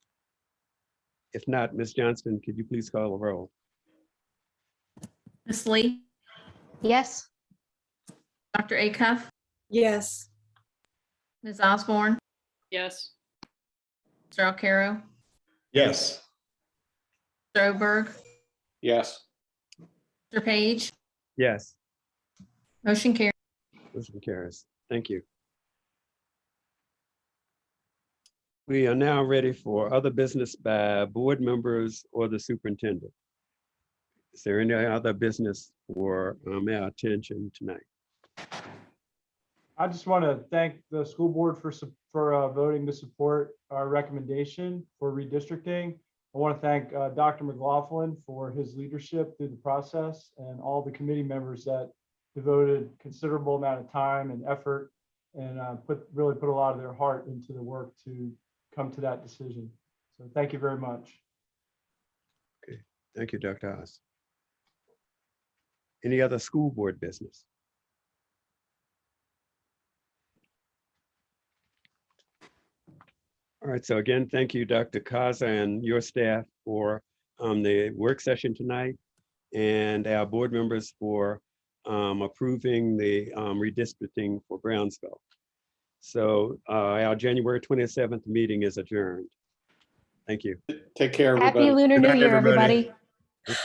If not, Ms. Johnston, could you please call a roll? Ms. Lee, Yes. Dr. Acuff, Yes. Ms. Osborne, Yes. Mr. Alcarro, Yes. Mr. Oberg, Yes. Mr. Page, Yes, motion carried. motion carries. Thank you. We are now ready for other business by board members or the superintendent. Is there any other business for um, our attention tonight? I just want to thank the school board for, sup- for uh, voting to support our recommendation for redistricting. I want to thank uh, Dr. McLaughlin for his leadership through the process and all the committee members that devoted considerable amount of time and effort and uh, put, really put a lot of their heart into the work to come to that decision. So thank you very much. Thank you, Dr. Oz. Any other school board business? All right, so again, thank you, Dr. Kaza and your staff for um, the work session tonight and our board members for um, approving the um, redistricting for Brownsville. So uh, our January 27th meeting is adjourned. Thank you. Take care, everybody. Happy Lunar Good New night, Year, everybody.